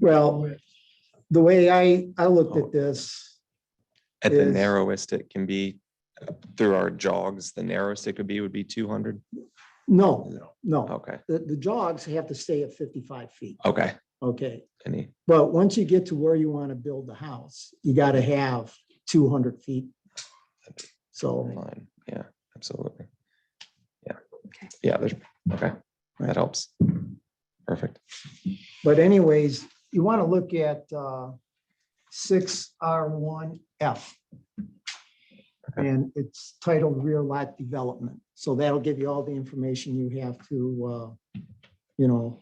Well, the way I, I looked at this, At the is- narrowest it can be, uh, through our jogs, the narrowest it could be would be two hundred? no, no, Okay, the, the jogs have to stay at fifty-five feet, okay. okay? Any, But once you get to where you want to build the house, you got to have two hundred feet. So, line, yeah, absolutely. Yeah, Okay. yeah, there's, okay, that helps. Perfect. but anyways, you want to look at uh, six R one F. Okay. And it's titled rear lot development. So that'll give you all the information you have to, uh, you know,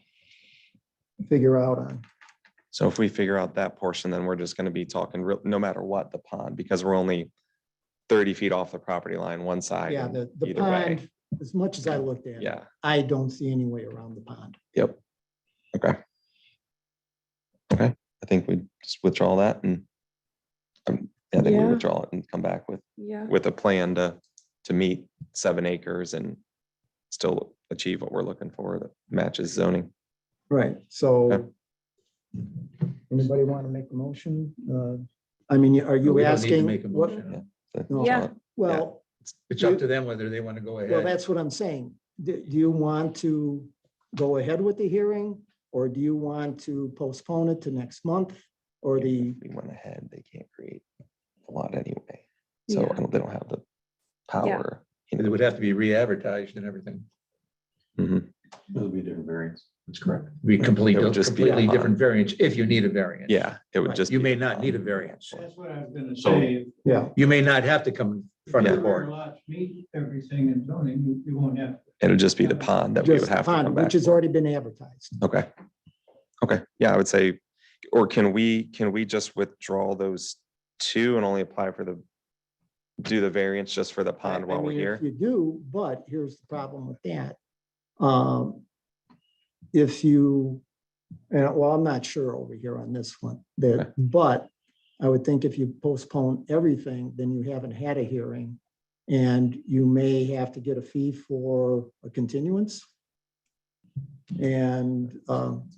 figure out on. So if we figure out that portion, then we're just gonna be talking real, no matter what, the pond, because we're only thirty feet off the property line, one side. Yeah, and the, the either way. pond, as much as I looked at it, Yeah, I don't see any way around the pond. yep. Okay. Okay, I think we just withdraw that and um, yeah, I think we Yeah. withdraw it and come back with Yeah, with a plan to, to meet seven acres and still achieve what we're looking for that matches zoning. Right, Okay. so. Anybody want to make a motion? Uh, I mean, are No, you we don't need to asking? make a what- motion. Yeah. No, Yeah. Well, It's up to them whether they want to go well, ahead. that's what I'm saying. Do, do you want to go ahead with the hearing? Or do you want to postpone it to next month or the, If We went ahead, they can't create a lot anyway. So Yeah. I don't- they don't have the power. you It know. would have to be re-advertised and everything. Mhm. It'll be a different variance. That's correct. Be completely, It would just be a completely pond. different variance if you need a variance. Yeah, it would Right. just. You be may the not need a pond. variance. That's what I was gonna So- say. yeah, You may not have to come in front of the If your board. lots meet everything in zoning, you, you won't have. It would just be the pond that we just would the have to come pond, back. which has already been advertised. Okay. Okay, yeah, I would say, or can we, can we just withdraw those two and only apply for the, do the variance just for the I- pond I while we're mean, if here? You do, but here's the problem with that. Um, If you, and well, I'm not sure over here on this one, Okay. there, but I would think if you postpone everything, then you haven't had a hearing. And you may have to get a fee for a continuance. And, um,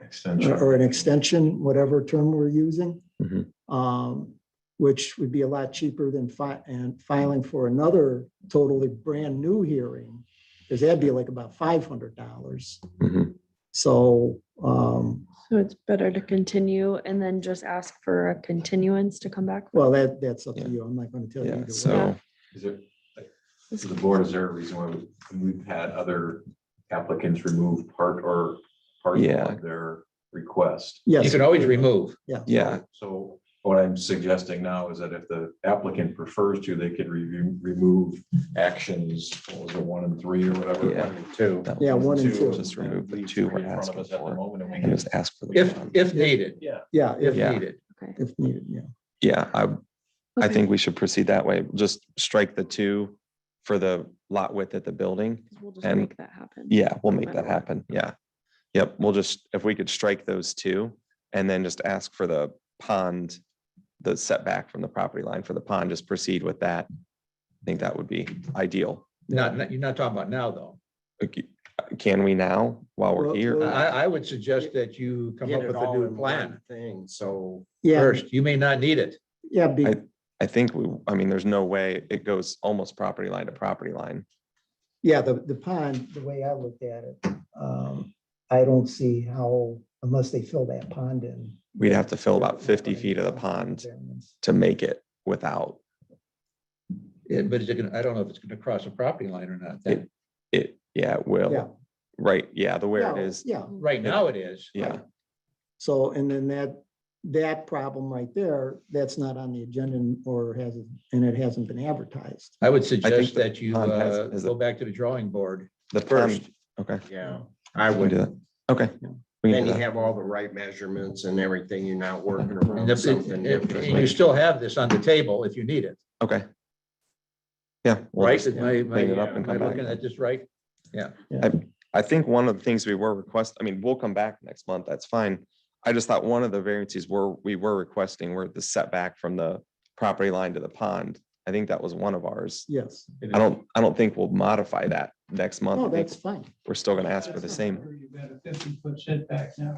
or Extension. or an extension, whatever term we're using. Mhm. um, Which would be a lot cheaper than fi- and filing for another totally brand new hearing. Cause that'd be like about five hundred dollars. Mhm. So, um, so it's better to continue and then just ask for a continuance to come back. well, that, that's up Yeah. to you. I'm not gonna tell you. Yeah, either way. so, Is there, to the board, is there a reason why we- we've had other applicants remove part or parcel Yeah. of their request? You Yes, can always remove. yeah, So what I'm suggesting now is that if the applicant prefers to, they could review, remove actions, what was it, one and three or whatever? Yeah. one and Two. that Yeah, was one and two. Just and remove the leave two three we're in front of asking us at the for moment and we and can- just ask for the If, pond. if needed, Yeah. yeah, if if, Yeah. needed. Okay. if needed, yeah. Yeah, I, I Okay. think we should proceed that way. Just strike the two for the lot width at the building. 'Cause We'll just and- make that happen. Yeah, we'll No make that matter what. happen. Yeah. Yep, we'll just, if we could strike those two and then just ask for the pond, the setback from the property line for the pond, just proceed with that. I think that would be ideal. Not, not- you're not talking about now, though. Okay, Can we now, while we're Well, here? well- I, I would suggest that you come up with a new plan Thing, so. Yeah, first. You may not need it. yeah, be- I think, we. I mean, there's no way it goes almost property line to property line. yeah, the, the pond, the way I looked at it, um, I don't see how, unless they fill that pond in. We'd have to fill about 50 feet of the pond. to make it without Yeah, eh, But is it gonna, I don't know if it's gonna cross a property line or not. then. it. Yeah, Yeah. it will. Right, yeah, the where it Yeah, is. Yeah, Right now it is. Yeah, so, and then that, that problem right there, that's not on the agenda and- or hasn't, and it hasn't been advertised. I would suggest the that you pond has- uh, has a- go back to the drawing board the first. first, okay. Yeah, I We can do would, that. Okay. we can then do you that. have all the right measurements and everything, you're not working And around if- something. and- that and You was- still have this on the table if you need it, Okay. Yeah. we'll right? just- Am I- am I- clean it up and am I come back. uh, looking at this right? I think one of the things we were request, I mean, we'll come back next month, that's fine. I just thought one of the variances were, we were requesting were the setback from the property line to the pond. I think that was one of ours. Yes, I don't, I don't think we'll modify that next month. no, I think that's fine. we're still gonna ask for the That's not same. true. You've got a fifty foot setback now.